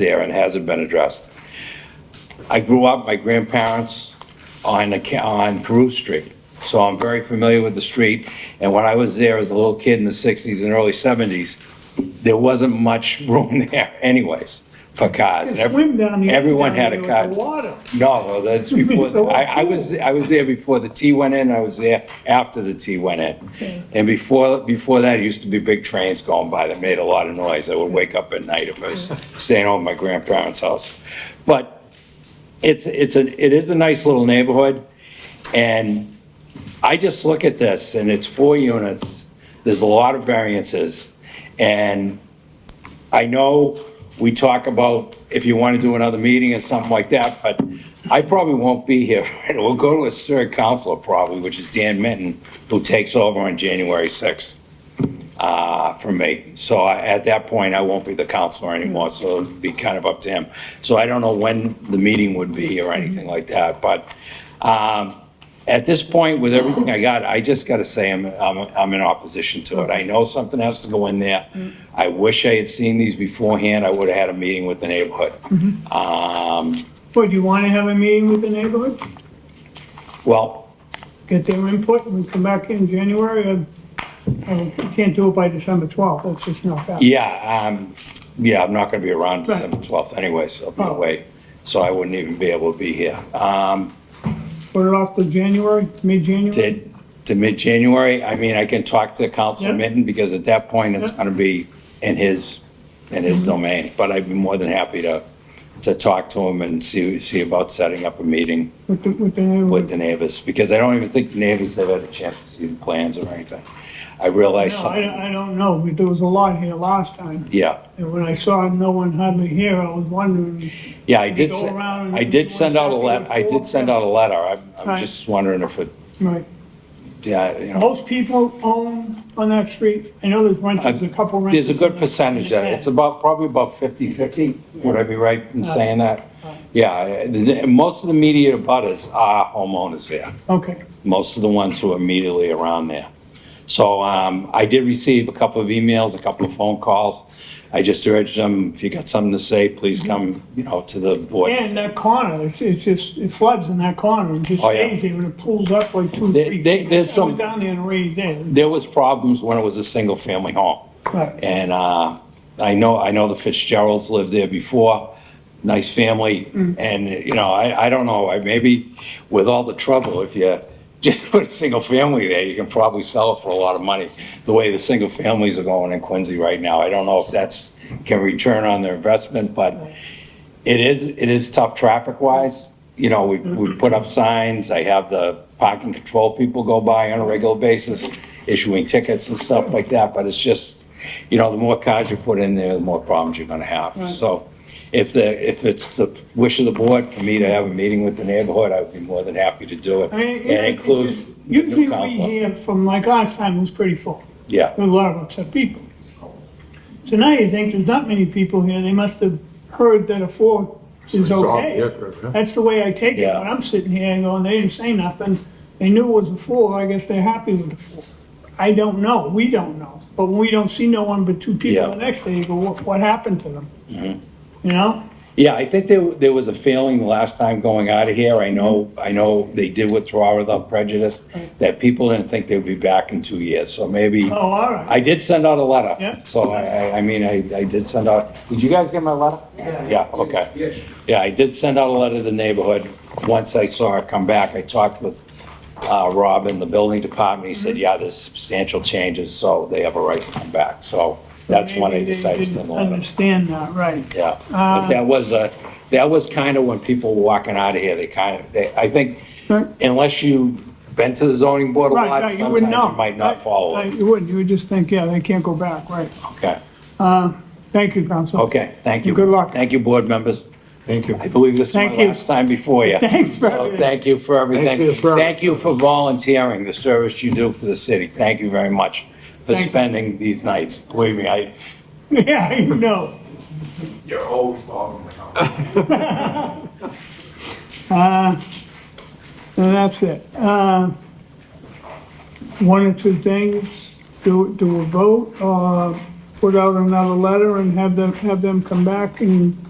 there and hasn't been addressed. I grew up, my grandparents on, the ca- on Peru Street, so I'm very familiar with the street. And when I was there as a little kid in the 60s and early 70s, there wasn't much room there anyways for cars. could swim down the- Everyone had down a there car. with the water. No, well, that's So before, I, I was, I was there before the T went in, I was there after the T went in. And before, before that, it used to be big trains going by that made a lot of noise. I would wake up at night if I was staying over at my grandparents' house. But it's, it's, a it is a nice little neighborhood, and I just look at this, and it's four units, there's a lot of variances, and I know we talk about if you want to do another meeting or something like that, but I probably won't be here. We'll go to a third counselor probably, which is Dan Minton, who takes over on January 6th uh, for me. So I- at that point, I won't be the counselor anymore, so it'll be kind of up to him. So I don't know when the meeting would be or anything like that, but um, at this point, with everything I got, I just got to say I'm, I'm I'm in opposition to it. I know something has to go in there. I wish I had seen these beforehand. I would have had a meeting with the neighborhood. Well, do you want to have a meeting with the neighborhood? Well, Get their input and come back in January or, or you can't do it by December 12th. That's just not fair. Yeah, um, yeah, I'm not gonna be around Right. December twelfth anyway, so I'll be Oh. away, so I wouldn't even be able to be here. Um, Put it off to January, mid-January? to, to mid-January, I mean, I can talk to Councilor Yeah. Minton, because at that point, it's Yeah. Mm-hmm. gonna be in his, in his domain, but I'd be more than happy to, to talk to him and see, see about setting up a meeting With the, with the with neighborhood? the neighbors, because I don't even think the neighbors have had a chance to see the plans or anything. I realize No, something, I, I don't know. but There was a lot here last time. yeah. And when I saw no one hardly here, I was wondering, Yeah, I Maybe did, go se- around and I did everyone's send out a happy let, with I four, did send yeah. out a letter, I'm, I'm Right. just wondering if it, right. yeah, you know. Most people own on that street. I know there's renters, a couple renters. Uh, There's a good on that- percentage that, it's about, probably about fifty-fifty, would I be right in saying that? Yeah, I- the- most of the media butters are homeowners there, Okay, most of the ones who are immediately around there. So, um, I did receive a couple of emails, a couple of phone calls, I just urged them, if you got something to say, please come, you know, to the board. and that corner, it's, it's just, it floods in that corner, it just Oh, yeah. stays there, and it pulls up like two, They- three they- feet. there's I some- went down there and raised it. there was problems when it was a single-family home. Right. And uh, I know, I know the Fitzgeralds lived there before, nice family, and, you know, I, I don't know, I maybe with all the trouble, if you just put a single family there, you can probably sell it for a lot of money, the way the single families are going in Quincy right now. I don't know if that's, can return on their investment, but it is, it is tough traffic-wise. You know, we, we put up signs, I have the parking control people go by on a regular basis, issuing tickets and stuff like that, but it's just, you know, the more cars you put in there, the more problems you're gonna have. So if the, if it's the wish of the board for me to have a meeting with the neighborhood, I would be more than happy to do it. I mean, And you know, it include just- the new Usually we counselor. hear from, like last time, it was pretty full, Yeah. a lot of upset people. So now you think there's not many people here, they must have heard that a four is okay. That's the way I take it, Yeah. when I'm sitting here and going, they didn't say nothing, they knew it was a four, I guess they're happy with the four. I don't know, we don't know, but when we don't see no one but two people Yeah. Mm-hmm. the next day, you go, what, what happened to them? You know? Yeah, I think there, there was a failing last time going out of here. I know, Mm-hmm. I know they did withdraw without prejudice, that people didn't think they'd be back in two years, so maybe. Oh, all right. I did send out a letter. Yeah. So I, I, I mean, I, I did send out, did you guys get my letter? Yeah. Yeah, okay. Yeah, I did send out a letter to the neighborhood. Once I saw it come back, I talked with, uh, Rob in the building department. He Mm-hmm. said, yeah, there's substantial changes, so they have a right to come back. So that's when I Maybe they decided to didn't send the letter. Understand that, right. Yeah, but Um, that was, uh, that was kind of when people were walking out of here, they kind of, they, I think, Right. unless you've been to the zoning board a Right, lot, right, you sometimes wouldn't know. you might not Right, follow right, it. You wouldn't, you would just think, yeah, they can't go back, right. Okay, Thank you, Council. okay, thank you. Good luck. Thank you, board members. Thank you. I believe this is my Thank you. last time before you. Thanks for So everything. Thank you for everything. your service. Thank you for volunteering, the service you do for the city. Thank you very much for Thank you. spending these nights. Believe me, I, Yeah, you know. You're always following the company. Uh, And that's it. Uh, One or two things, do, uh, do a vote, or put out another letter and have them, have them come back and